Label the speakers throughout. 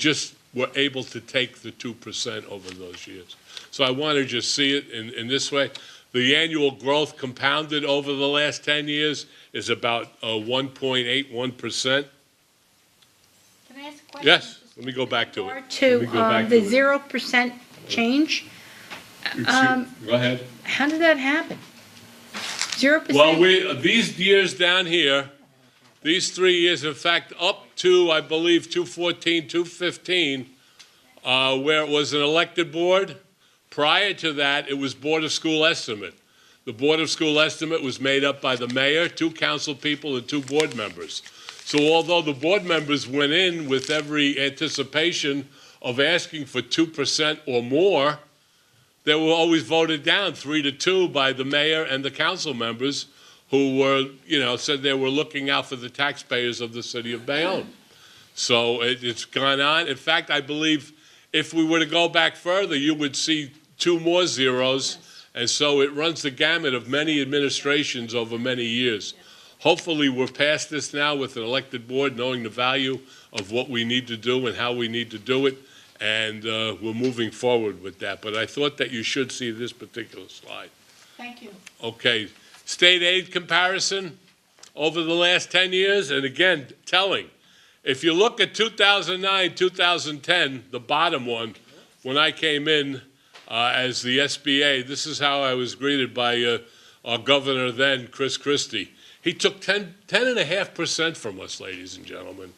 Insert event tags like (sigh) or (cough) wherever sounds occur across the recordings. Speaker 1: just were able to take the two percent over those years. So I want to just see it in, in this way. The annual growth compounded over the last ten years is about uh, one point eight one percent.
Speaker 2: Can I ask a question?
Speaker 1: Yes, let me go back to
Speaker 2: Or
Speaker 1: it. Let me
Speaker 2: to
Speaker 1: go
Speaker 2: uh,
Speaker 1: back
Speaker 2: the
Speaker 1: to it.
Speaker 2: zero percent change,
Speaker 1: Excuse-
Speaker 2: um,
Speaker 1: Go ahead.
Speaker 2: how did that happen? Zero
Speaker 1: Well,
Speaker 2: percent,
Speaker 1: we, these years down here, these three years, in fact, up to, I believe, 214, 215, uh, where it was an elected board, prior to that, it was Board of School Estimate. The Board of School Estimate was made up by the mayor, two council people, and two board members. So although the board members went in with every anticipation of asking for 2% or more, they were always voted down three to two by the mayor and the council members who were, you know, said they were looking out for the taxpayers of the city of Bayonne. So it, it's gone on. In fact, I believe if we were to go back further, you would see two more zeros. And so it runs the gamut of many administrations over many years. Hopefully, we're past this now with an elected board, knowing the value of what we need to do and how we need to do it. And uh, we're moving forward with that. But I thought that you should see this particular slide.
Speaker 2: thank you.
Speaker 1: Okay, state aid comparison over the last 10 years, and again, telling. If you look at 2009, 2010, the bottom one, when I came in uh, as the SBA, this is how I was greeted by uh, our governor then, Chris Christie. He took 10, 10.5% from us, ladies and gentlemen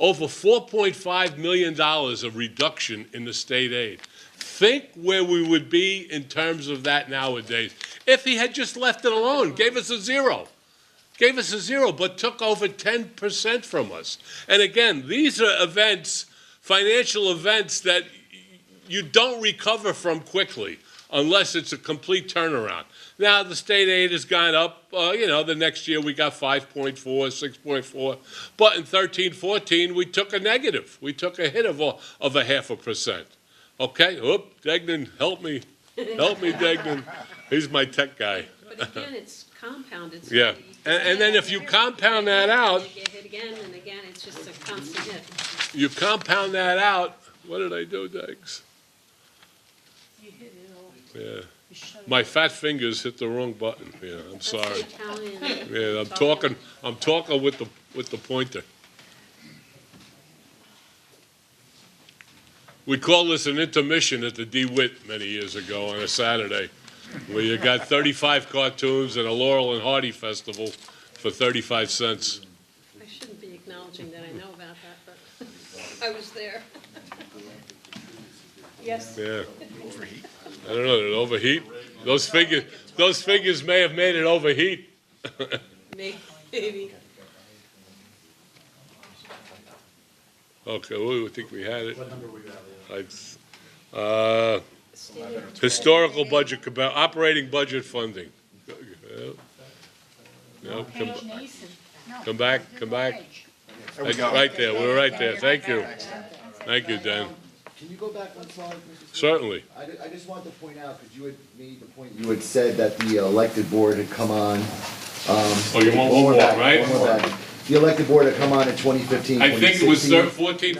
Speaker 1: over $4.5 million of reduction in the state aid. Think where we would be in terms of that nowadays if he had just left it alone, gave us a zero. Gave us a zero, but took over 10% from us. And again, these are events, financial events that you don't recover from quickly unless it's a complete turnaround. Now, the state aid has gone up, uh, you know, the next year we got 5.4, 6.4, but in 13, 14, we took a negative. We took a hit of a, of a half a percent. Okay, oop, Degnan, help me, help me, Degnan. He's my tech guy.
Speaker 3: But again, it's compounded. so
Speaker 1: Yeah,
Speaker 3: you just
Speaker 1: and, and
Speaker 3: get
Speaker 1: then
Speaker 3: hit
Speaker 1: if you
Speaker 3: again,
Speaker 1: compound that out,
Speaker 3: You get hit again and again, it's just a constant hit.
Speaker 1: you compound that out, what did I do, Degs? Yeah, my fat fingers hit the wrong button, yeah, I'm sorry.
Speaker 3: That's the Italian.
Speaker 1: Yeah, I'm talking, I'm talking with the, with the pointer. We called this an intermission at the DeWitt many years ago on a Saturday, where you got 35 cartoons and a Laurel and Hardy festival for 35 cents.
Speaker 3: I shouldn't be acknowledging that I know about that, but (laughs) I was there. (laughs) Yes.
Speaker 1: Yeah. I don't know, did it overheat? Those figures, those figures may have made it overheat.
Speaker 3: May- Maybe.
Speaker 1: Okay, well, I think we had it. I- Uh, historical budget, compa- operating budget funding. No, come,
Speaker 2: Page Nason. No,
Speaker 1: come back, come back.
Speaker 2: page.
Speaker 4: There we go.
Speaker 1: Right there, we're right there, thank you. Thank you, Dan,
Speaker 5: Can you go back one slide, Mr. Smith?
Speaker 1: certainly.
Speaker 5: I, ju- I just wanted to point out, because you had made the point, you had said that the elected board had come on.
Speaker 1: Oh, you want
Speaker 5: One
Speaker 1: one
Speaker 5: more
Speaker 1: more,
Speaker 5: back,
Speaker 1: right?
Speaker 5: one more back. The elected board had come on in 2015,
Speaker 1: I think it was
Speaker 5: 2016.
Speaker 1: thir-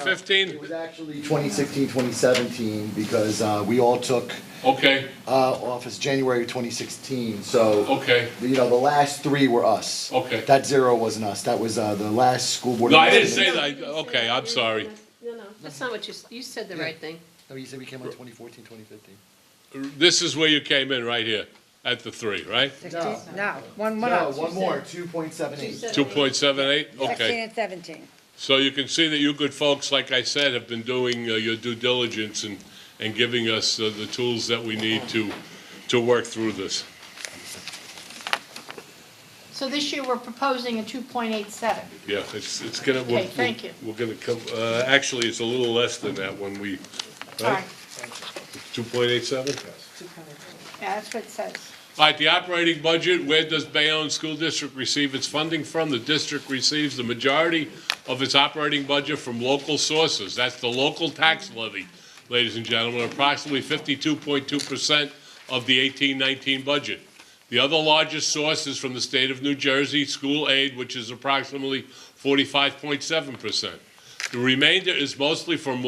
Speaker 1: 14, 15?
Speaker 5: It was actually 2016, 2017, because uh, we all took
Speaker 1: Okay,
Speaker 5: uh, office January 2016, so,
Speaker 1: okay.
Speaker 5: you know, the last three were us.
Speaker 1: Okay.
Speaker 5: That zero wasn't us, that was uh, the last school board.
Speaker 1: No, I didn't say
Speaker 3: No,
Speaker 1: that.
Speaker 3: you didn't say
Speaker 1: Okay,
Speaker 3: that.
Speaker 1: I'm sorry.
Speaker 3: No, no, that's not what you, s- you said the
Speaker 5: Yeah.
Speaker 3: right thing.
Speaker 5: No, Oh, you said we came on 2014, 2015.
Speaker 1: This is where you came in, right here, at the three, right?
Speaker 5: No.
Speaker 6: No, one more.
Speaker 5: No, one more, 2.78.
Speaker 3: said-
Speaker 1: 2.78,
Speaker 6: Sixteen
Speaker 1: okay.
Speaker 6: and seventeen.
Speaker 1: So you can see that you good folks, like I said, have been doing uh, your due diligence and, and giving us uh, the tools that we need to, to work through this.
Speaker 2: So this year, we're proposing a two point eight seven.
Speaker 1: Yeah, it's, it's gonna, we're.
Speaker 2: Okay, thank you.
Speaker 1: We're gonna come, uh, actually, it's a little less than that when we,
Speaker 2: All right,
Speaker 1: 2.87?
Speaker 2: yeah, that's what it says.
Speaker 1: All right, the operating budget, where does Bayonne School District receive its funding from? The district receives the majority of its operating budget from local sources. That's the local tax levy, ladies and gentlemen, approximately 52.2% of the 18-19 budget. The other largest source is from the state of New Jersey, school aid, which is approximately 45.7%. The remainder is mostly from